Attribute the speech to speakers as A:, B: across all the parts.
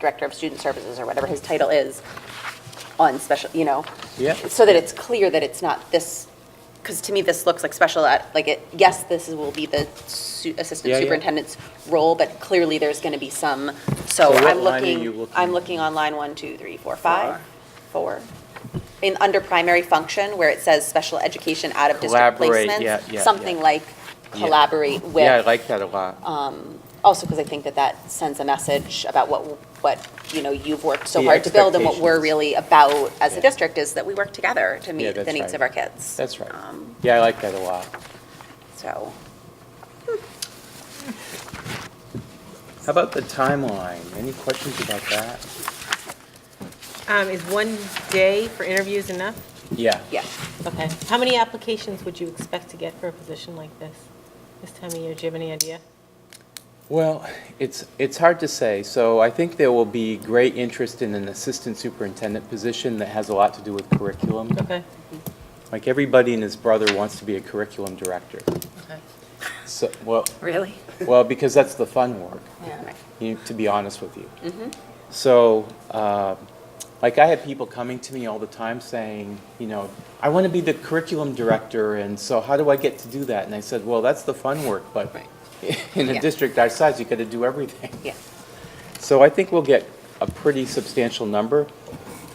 A: Director of Student Services or whatever his title is on special, you know?
B: Yeah.
A: So that it's clear that it's not this, because to me, this looks like special ed, like it, yes, this is- will be the su- assistant
B: Yeah, yeah.
A: superintendent's role, but clearly there's going to be some, so
B: So what
A: I'm
B: line are you
A: looking,
B: looking
A: I'm
B: at?
A: looking on line one, two, three, four, five, four. In, under primary function, where it says special education out of district
B: Collaborate, yeah,
A: placements,
B: yeah,
A: something
B: yeah.
A: like
B: Yeah.
A: collaborate with.
B: Yeah, I like that a
A: Uh,
B: lot.
A: Also, because I think that that sends a message about what, what, you know, you've worked so hard to build and what we're
B: expectations.
A: really about as a
B: Yeah.
A: district is that we work together to meet the
B: that's
A: needs
B: right.
A: of our kids.
B: That's right.
A: Um,
B: Yeah, I like that a lot.
A: So,
B: How about the timeline? Any questions about that?
C: Um, is one day for interviews enough?
B: Yeah.
A: yeah.
C: Okay. How many applications would you expect to get for a position like this, this time of year? Do you have any idea?
B: Well, it's, it's hard to say. So I think there will be great interest in an assistant superintendent position that has a lot to do with curriculum.
C: Okay.
B: Like, everybody and his brother wants to be a curriculum director.
C: Okay.
B: So, well,
A: Really?
B: well, because that's the fun work.
A: Yeah.
B: you- to be honest with you. So, um, like, I had people coming to me all the time saying, you know, I want to be the curriculum director, and so how do I get to do that? And I said, well, that's the fun work, but in a
A: Yeah.
B: district our size, you got to do everything.
A: Yeah.
B: So I think we'll get a pretty substantial number.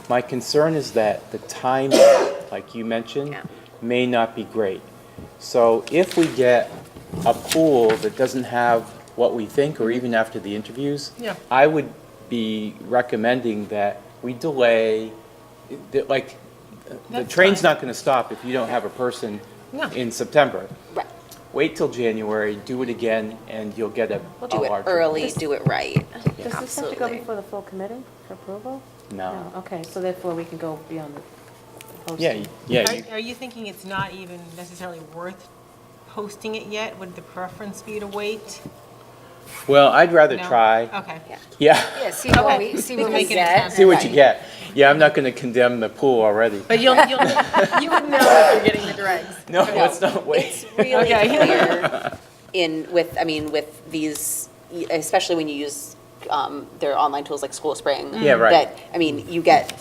B: My concern is that the timing, like you mentioned,
A: Yeah.
B: may not be great. So if we get a pool that doesn't have what we think, or even after the interviews,
C: Yeah.
B: I would be recommending that we delay, that, like, the
C: That's
B: train's
C: fine.
B: not going to stop if you don't have a person
C: No.
B: in September.
A: Right.
B: Wait till January, do it again, and you'll get a a
A: Do it
B: larger-
A: early, do it right.
D: Does this have to go
A: Absolutely.
D: before the full committee for approval?
B: No.
D: Okay, so therefore we can go beyond the posting.
B: Yeah, yeah. you-
C: Are, are you thinking it's not even necessarily worth posting it yet? Would the preference be to wait?
B: Well, I'd rather
C: No?
B: try.
C: Okay.
A: Yeah.
B: Yeah,
E: Yeah, see what
C: Okay.
E: we, see what we
C: Making it
E: get.
C: sound
B: see what you
A: Right.
B: get. Yeah, I'm not going to condemn the pool already.
C: But you'll, you'll, you would know if you're getting the dregs.
B: No, let's not
A: It's
B: wait.
A: really
C: Okay.
A: clear in, with, I mean, with these, especially when you use um, their online tools like School Spring.
B: Yeah, right.
A: That, I mean, you get,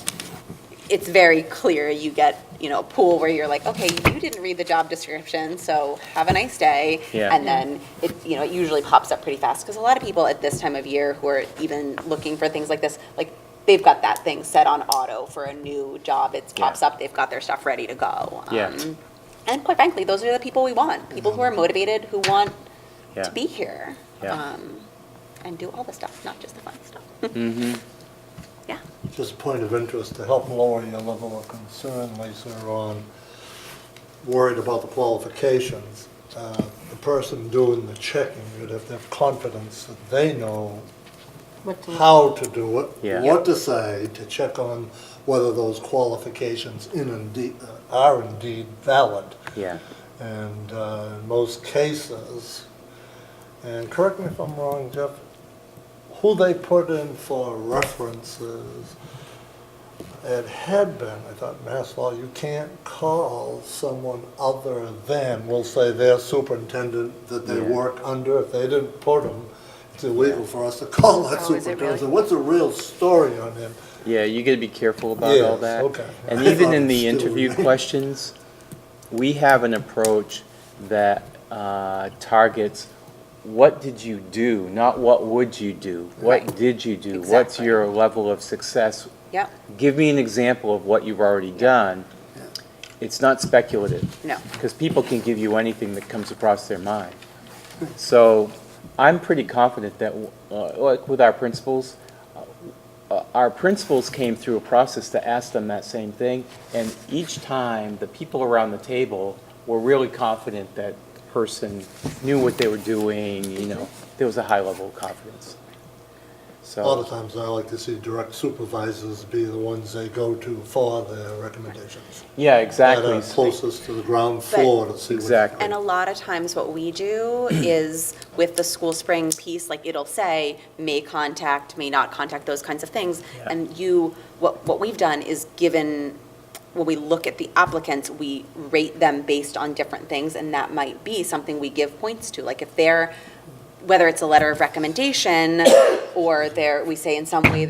A: it's very clear, you get, you know, a pool where you're like, okay, you didn't read the job description, so have a nice day.
B: Yeah.
A: And then it, you know, it usually pops up pretty fast, because a lot of people at this time of year who are even looking for things like this, like, they've got that thing set on auto for a new job, it
B: Yeah.
A: pops up, they've got their stuff ready to go.
B: Yeah. Mm-hmm.
A: Um, and quite frankly, those are the people we want, people who are motivated, who want
B: Yeah.
A: to be here.
B: Yeah.
A: um, And do all the stuff, not just the fun stuff.
B: Mm-hmm.
A: Yeah,
F: Just a point of interest, to help lower your level of concern, Lisa, on worried about the qualifications, uh, the person doing the checking, you'd have to have confidence that they know
C: What to-
F: how to do it,
B: Yeah.
F: what to say, to check on whether those qualifications in indeed, uh, are indeed valid.
B: Yeah.
F: And uh, in most cases, and correct me if I'm wrong, Jeff, who they put in for references, it had been, I thought, Mass Law, you can't call someone other than, we'll say their superintendent that they
B: Yeah.
F: work under, if they didn't put them, it's illegal for us to call that
E: Oh, is it really?
F: superintendent. So What's the real story on him?
B: Yeah, you got to be careful about all
F: Yes,
B: that.
F: okay.
B: And
F: I
B: even
F: thought
B: in
F: it
B: the
F: still
B: interview
F: remained.
B: questions, we have an approach that uh, targets what did you do, not what would you do? What
A: Right.
B: did you do? What's
A: Exactly.
B: your level of success?
A: yep,
B: Give me an example of what you've already done. It's not speculative.
A: no,
B: because people can give you anything that comes across their mind. So I'm pretty confident that, uh, like with our principals, uh, our principals came through a process to ask them that same thing, and each time, the people around the table were really confident that person knew what they were doing, you know, there was a high level of confidence.
F: A lot of
B: So,
F: times I like to see direct supervisors be the ones they go to for their recommendations.
B: yeah,
F: That
B: exactly.
F: are closest to the ground floor to see what.
B: Exactly.
A: And a lot of times what we do is with the school spring piece, like it'll say, may contact, may not contact, those kinds of things.
B: Yeah.
A: And you, what, what we've done is given, when we look at the applicants, we rate them based on different things. And that might be something we give points to, like if they're, whether it's a letter of recommendation or they're, we say in some way